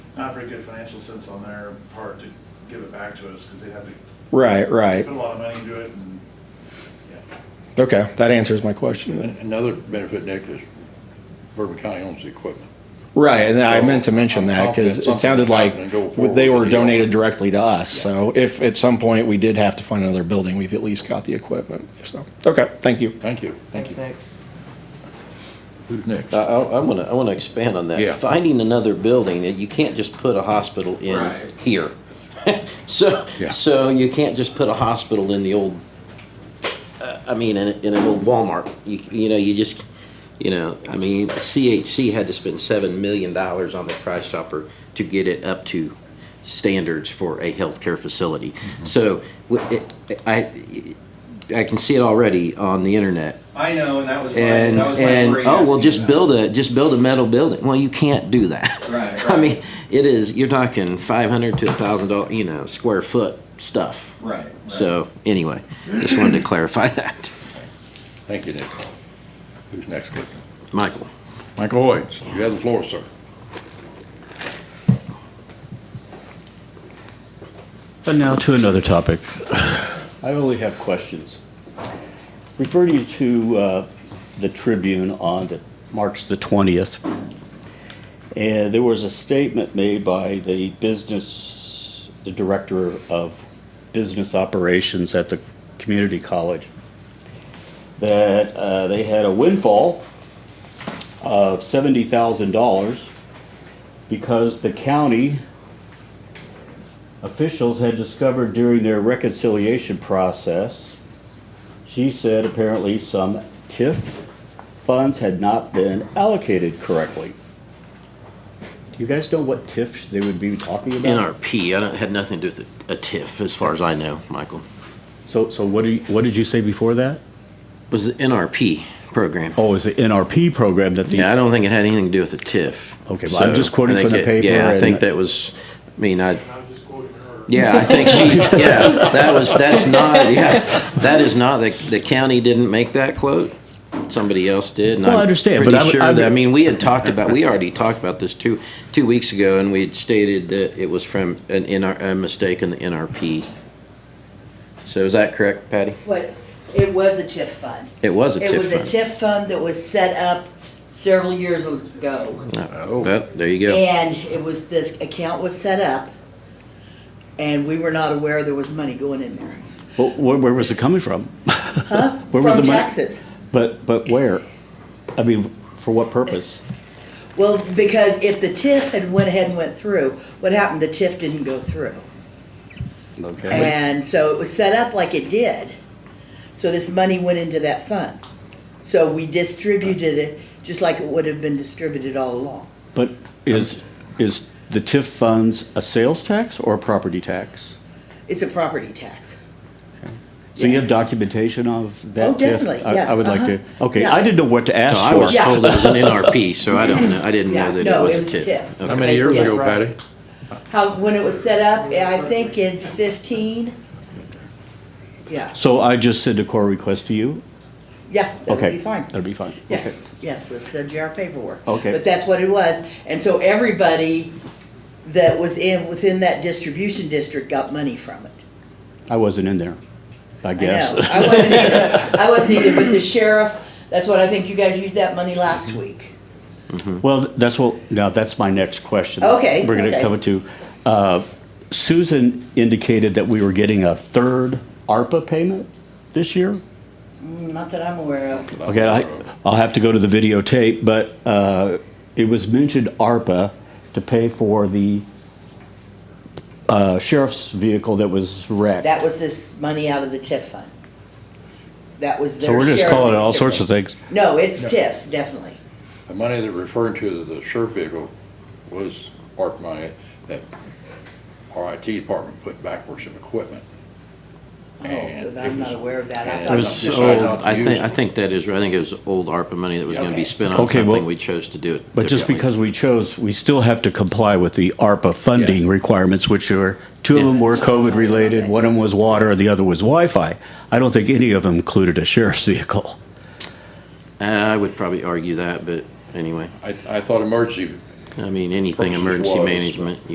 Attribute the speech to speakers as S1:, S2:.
S1: not very good financial sense on their part to give it back to us, because they'd have to
S2: Right, right.
S1: put a lot of money into it, and, yeah.
S2: Okay, that answers my question then.
S3: Another benefit, Nick, is Bourbon County owns the equipment.
S2: Right, and I
S3: So,
S2: meant to mention
S3: I'm
S2: that
S3: confident
S2: because it sounded
S3: something's
S2: like
S3: happening. Go forward
S2: they were
S3: with the deal.
S2: donated directly to us. So if at some point we did have to find another building, we've at least got the equipment. So, okay, thank you.
S3: Thank you. Thank
S4: Thanks,
S3: you.
S4: Nick.
S3: Who's next?
S5: I, I want to, I want to expand on that.
S3: Yeah.
S5: Finding another building, you can't just put a hospital in
S6: Right.
S5: here. So,
S3: Yeah.
S5: so you can't just put a hospital in the old, uh, I mean, in, in an old Walmart. You, you know, you just, you know, I mean, CHC had to spend seven million dollars on the Price Chopper to get it up to standards for a healthcare facility.
S3: Mm-hmm.
S5: So, w- it- I, I can see it already on the internet.
S6: I know, and that was my,
S5: and
S6: that was my
S5: and
S6: worry
S5: oh well
S6: asking
S5: just
S6: about
S5: build a just build a metal building well you can't do that
S6: Right,
S5: i
S6: right.
S5: mean it is you're talking 500 to 1000 dollars you know square foot stuff
S6: it. Right. right.
S5: so anyway just wanted to clarify that
S3: Thank you, Nick. Who's next? Click.
S5: michael
S3: Michael Hoyt, you have the floor, sir.
S7: But now to another topic. I only have questions. Refer you to uh, the Tribune on the- March the 20th. And there was a statement made by the business, the director of business operations at the community college, that uh, they had a windfall of $70,000 because the county officials had discovered during their reconciliation process, she said apparently some TIF funds had not been allocated correctly. Do you guys know what TIF they would be talking about?
S5: nrp i don't, had nothing to do with a tiff as far as i know michael
S7: So, so what do you, what did you say before that?
S5: It was the nrp program
S7: Oh, it's the NRP program that the.
S5: yeah i don't think it had anything to do with the tiff
S7: Okay, well, I'm just quoting
S5: I think
S7: from the
S5: it-
S7: paper
S5: yeah i
S7: and-
S5: think that was i mean i
S8: I'm just quoting her.
S5: Yeah, I think she, yeah, that was, that's not, yeah, that is not, the, the county didn't make that quote. Somebody else did, and
S7: Well, I
S5: I'm
S7: understand, but I
S5: pretty
S7: would- I
S5: sure that, I
S7: would-
S5: mean, we had talked about, we already talked about this two, two weeks ago, and we had stated that it was from an NR, a mistake in the NRP. So is that correct, Patty?
S9: What, it was a TIF fund.
S5: It was a
S9: It was a
S5: TIF fund.
S9: TIF fund that was set up several years ago.
S5: Oh, well, there you go.
S9: And it was, this account was set up, and we were not aware there was money going in there.
S7: Well, where, where was it coming from? Where was
S9: From
S7: the money?
S9: taxes.
S7: But, but where? I mean, for what purpose?
S9: Well, because if the TIF had went ahead and went through, what happened, the TIF didn't go through.
S7: Okay.
S9: And so it was set up like it did. So this money went into that fund. So we distributed it just like it would have been distributed all along.
S7: But is, is the TIF funds a sales tax or a property tax?
S9: It's a property tax.
S7: So you
S9: Yes.
S7: have documentation of that?
S9: Oh,
S7: TIF?
S9: definitely,
S7: I- I
S9: yes,
S7: would like to,
S9: uh-huh.
S7: okay,
S9: Yeah.
S7: I didn't know what to
S5: No,
S7: ask
S5: I
S7: for.
S5: was told it was an NRP, so I don't know, I didn't
S9: Yeah,
S5: know that
S9: no,
S5: it
S9: it
S5: was
S9: was
S5: a TIF.
S9: TIF.
S5: Okay.
S3: How many years ago,
S9: Right.
S3: Patty?
S9: How, when it was set up, I think in fifteen? Yeah,
S7: So I just send a core request to you?
S9: yeah, that would
S7: Okay,
S9: be fine.
S7: That'd be fine. Okay.
S9: Yes, yes, we'll send you our paperwork.
S7: Okay.
S9: But that's what it was. And so everybody that was in, within that distribution district got money from it.
S7: I wasn't in there, I
S9: I
S7: guess.
S9: know. I wasn't either, I wasn't either, but the sheriff, that's what I think you guys used that money
S3: Mm-hmm.
S9: last week.
S7: Well, that's what, now, that's my next question.
S9: Okay,
S7: We're going to
S9: okay.
S7: come to, uh, Susan indicated that we were getting a third ARPA payment this year?
S9: Mm, Not that I'm aware of.
S7: Okay, I, I'll have to go to the videotape, but, uh, it was mentioned ARPA to pay for the, uh, sheriff's vehicle that was wrecked.
S9: That was this money out of the TIF fund. That was their
S7: So we're just
S9: share of
S7: calling it
S9: the
S7: all sorts of
S9: district.
S7: things.
S9: No, it's TIF, definitely.
S3: The money that referring to the sheriff vehicle was ARP money that our IT department put back for some equipment.
S9: Oh,
S3: And
S9: but
S3: it
S9: I'm not
S3: was-
S9: aware of that. I
S3: and
S9: thought-
S3: it
S5: was
S3: was decided
S5: so,
S3: not to
S5: I
S3: use
S5: think,
S3: it.
S5: I think that is, I think it was old ARPA money that was gonna
S9: Okay.
S5: be spent on
S7: Okay, well-
S5: something we chose to do it
S7: But just
S5: differently.
S7: because we chose, we still have to comply with the ARPA funding
S3: Yes.
S7: requirements, which are, two of them were COVID-related, one of them was water, and the other was Wi-Fi. I don't think any of them included a sheriff's vehicle.
S5: Uh, I would probably argue that, but anyway.
S3: I, I thought emergency
S5: I mean, anything
S3: Versus
S5: emergency
S3: was, but-
S5: management,